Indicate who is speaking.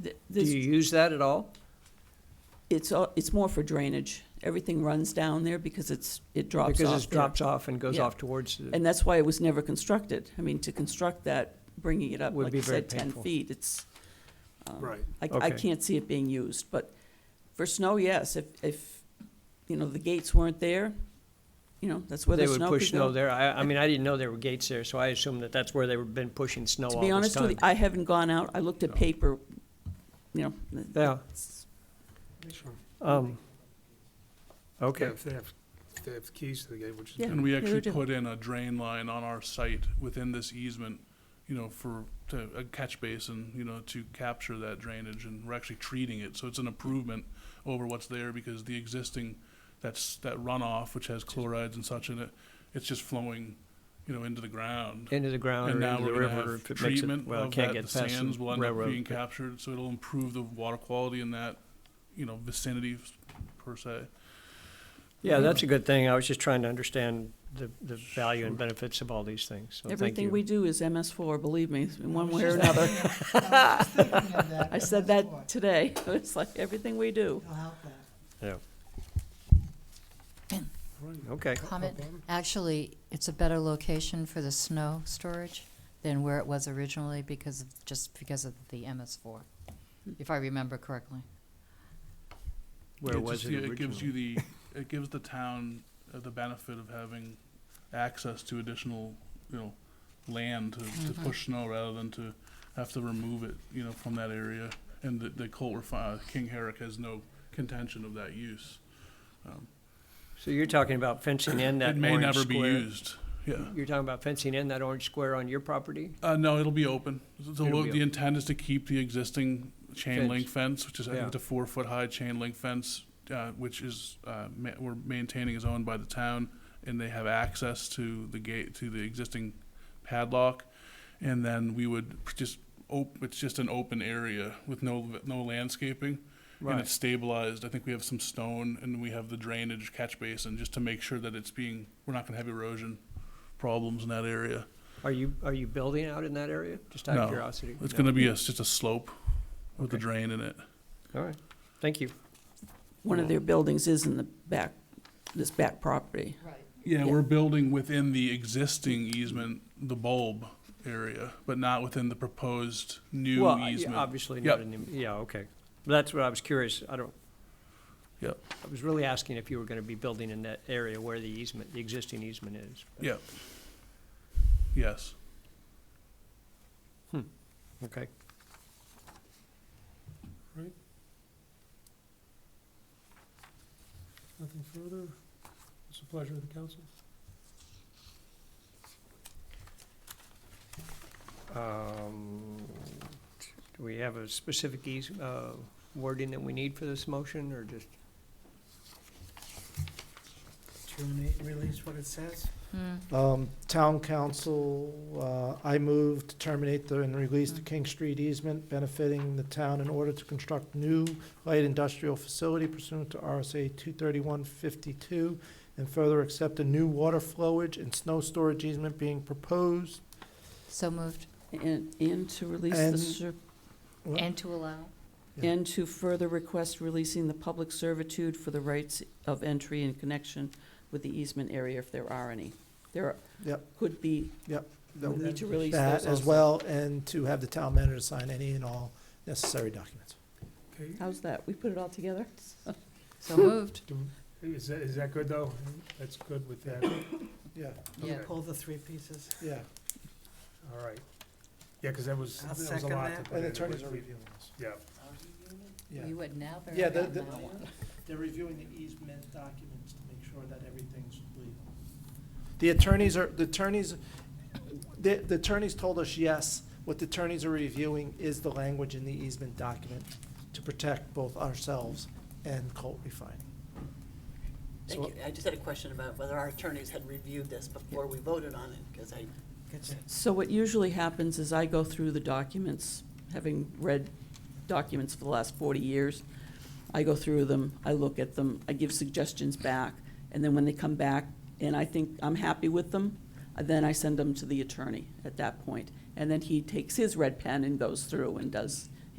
Speaker 1: Do you
Speaker 2: This,
Speaker 1: use that at all?
Speaker 2: it's, all- it's more for drainage. Everything runs down there because it's, it drops off.
Speaker 1: Because it
Speaker 2: there.
Speaker 1: drops off and goes
Speaker 2: Yeah.
Speaker 1: off towards, the-
Speaker 2: And that's why it was never constructed. I mean, to construct that, bringing it up,
Speaker 1: Would
Speaker 2: like
Speaker 1: be
Speaker 2: you
Speaker 1: very
Speaker 2: said, ten
Speaker 1: painful.
Speaker 2: feet, it's, um,
Speaker 3: Right.
Speaker 2: I, I
Speaker 1: Okay.
Speaker 2: can't see it being used, but for snow, yes, if, if, you know, the gates weren't there, you know, that's where the
Speaker 1: they
Speaker 2: snow could
Speaker 1: would
Speaker 2: go.
Speaker 1: push snow there. I, I mean, I didn't know there were gates there, so I assumed that that's where they were been pushing snow
Speaker 2: To
Speaker 1: all
Speaker 2: be
Speaker 1: this
Speaker 2: honest with
Speaker 1: time.
Speaker 2: you, I haven't gone out, I looked at
Speaker 1: No.
Speaker 2: paper, you know. th-
Speaker 1: Yeah,
Speaker 2: it's-
Speaker 3: Sure.
Speaker 1: um, okay,
Speaker 3: If they have, if they have keys to the gate, which
Speaker 2: Yeah.
Speaker 3: is,
Speaker 4: And we
Speaker 2: they
Speaker 4: actually
Speaker 2: do.
Speaker 4: put in a drain line on our site within this easement, you know, for, to, a catch basin, you know, to capture that drainage, and we're actually treating it, so it's an improvement over what's there, because the existing, that's, that runoff, which has chlorides and such in it, it's just flowing, you know, into the ground.
Speaker 1: into the ground
Speaker 4: And
Speaker 1: or
Speaker 4: now
Speaker 1: into the
Speaker 4: we're gonna
Speaker 1: river. if
Speaker 4: have
Speaker 1: it makes it-
Speaker 4: treatment
Speaker 1: well, it
Speaker 4: of
Speaker 1: can't
Speaker 4: that,
Speaker 1: get
Speaker 4: the
Speaker 1: past the
Speaker 4: sands will end up
Speaker 1: railroad,
Speaker 4: being
Speaker 1: but-
Speaker 4: captured, so it'll improve the water quality in that, you know, vicinity, per se.
Speaker 1: Yeah, that's a good thing. I was just trying to understand the, the value and benefits of all these things, so thank
Speaker 2: Everything
Speaker 1: you.
Speaker 2: we do is MS four, believe me, in one
Speaker 5: was
Speaker 2: way or
Speaker 5: just
Speaker 2: another.
Speaker 5: thinking of that.
Speaker 2: I said
Speaker 5: That's why.
Speaker 2: that today. It's like everything we do.
Speaker 5: It'll help that.
Speaker 1: Okay,
Speaker 6: Comment, actually, it's a better location for the snow storage than where it was originally because of, just because of the MS4, if I remember correctly.
Speaker 1: where
Speaker 4: It
Speaker 1: was
Speaker 4: just-
Speaker 1: it
Speaker 4: It gives you
Speaker 1: originally?
Speaker 4: the, it gives the town uh, the benefit of having access to additional, you know, land to, to push snow rather than to have to remove it, you know, from that area. And the, the Colt refi, uh, King Herrick has no contention of that use.
Speaker 1: So you're talking about fencing in that
Speaker 4: It may
Speaker 1: orange
Speaker 4: never be
Speaker 1: square?
Speaker 4: used, yeah.
Speaker 1: You're talking about fencing in that orange square on your property?
Speaker 4: Uh, no, it'll be open. So
Speaker 1: It'll be
Speaker 4: the
Speaker 1: open.
Speaker 4: intent is to keep the existing chain link fence, which is I
Speaker 1: Yeah.
Speaker 4: think it's a four foot high chain link fence, uh, which is uh, ma- we're maintaining is owned by the town, and they have access to the gate to the existing padlock, and then we would just op- it's just an open area with no no landscaping. And
Speaker 1: Right.
Speaker 4: it's stabilized. I think we have some stone and we have the drainage catch basin just to make sure that it's being, we're not gonna have erosion problems in that area.
Speaker 1: Are you, are you building out in that area? Just out of
Speaker 4: No,
Speaker 1: curiosity?
Speaker 4: It's
Speaker 1: No.
Speaker 4: gonna be a, just a slope with a
Speaker 1: Okay.
Speaker 4: drain in it.
Speaker 1: All right, thank you.
Speaker 2: One of their buildings is in the back, this back property.
Speaker 6: Right.
Speaker 4: Yeah,
Speaker 2: Yeah.
Speaker 4: we're building within the existing easement, the bulb area, but not within the proposed new
Speaker 1: Well, yeah,
Speaker 4: easement.
Speaker 1: obviously
Speaker 4: Yep.
Speaker 1: not in, the- yeah, okay. That's what I was curious, I don't.
Speaker 4: Yep.
Speaker 1: I was really asking if you were gonna be building in that area where the easement, the existing easement is.
Speaker 4: Yeah. Yes.
Speaker 1: Okay.
Speaker 3: nothing further. It's a pleasure of the council.
Speaker 1: Um, Do we have a specific eas, uh, wording that we need for this motion, or just?
Speaker 5: Do you want me to release what it says?
Speaker 6: Hmm.
Speaker 7: Um, Town council, uh, I move to terminate the, and release
Speaker 6: Hmm.
Speaker 7: the King Street easement benefiting the town in order to construct new light industrial facility pursuant to RSA two thirty-one fifty-two, and further accept a new water flowage and snow storage easement being proposed.
Speaker 6: So moved,
Speaker 2: And, and to release the,
Speaker 7: And-
Speaker 2: ser-
Speaker 7: Well,
Speaker 6: and to allow.
Speaker 7: Yeah.
Speaker 2: and to further request releasing the public servitude for the rights of entry in connection with the easement area if there are any. There are-
Speaker 7: Yep.
Speaker 2: could be, we
Speaker 7: that-
Speaker 2: need to release those
Speaker 7: That as
Speaker 2: also.
Speaker 7: well, and to have the town manager sign any and all necessary documents.
Speaker 3: Okay,
Speaker 2: How's that? We put it all together?
Speaker 6: So moved.
Speaker 3: do- is that, is that good though? That's good with that,
Speaker 7: Yeah,
Speaker 6: Yeah.
Speaker 5: Pull the three pieces.
Speaker 7: yeah,
Speaker 3: all right. Yeah, because that was,
Speaker 5: I'll
Speaker 3: that was a
Speaker 5: second
Speaker 3: lot to
Speaker 5: that.
Speaker 3: put
Speaker 7: and
Speaker 3: in.
Speaker 7: attorneys
Speaker 3: We-
Speaker 7: are
Speaker 3: we-
Speaker 7: reviewing this.
Speaker 3: Yeah,
Speaker 7: Yeah.
Speaker 6: You would now very
Speaker 7: Yeah, the-
Speaker 6: well
Speaker 7: the-
Speaker 6: know.
Speaker 5: They're reviewing the easement documents to make sure that everything's legal.
Speaker 7: The attorneys are, the attorneys, the, the attorneys told us, yes, what the attorneys are reviewing is the language in the easement document to protect both ourselves and Colt Refining.
Speaker 8: Thank
Speaker 7: So-
Speaker 8: you. I just had a question about whether our attorneys had reviewed this before we voted on it, because I,
Speaker 2: So what usually happens is I go through the documents, having read documents for the last 40 years. I go through them, I look at them, I give suggestions back, and then when they come back and I think I'm happy with them, then I send them to the attorney at that point. And then he takes his red pen and goes through and does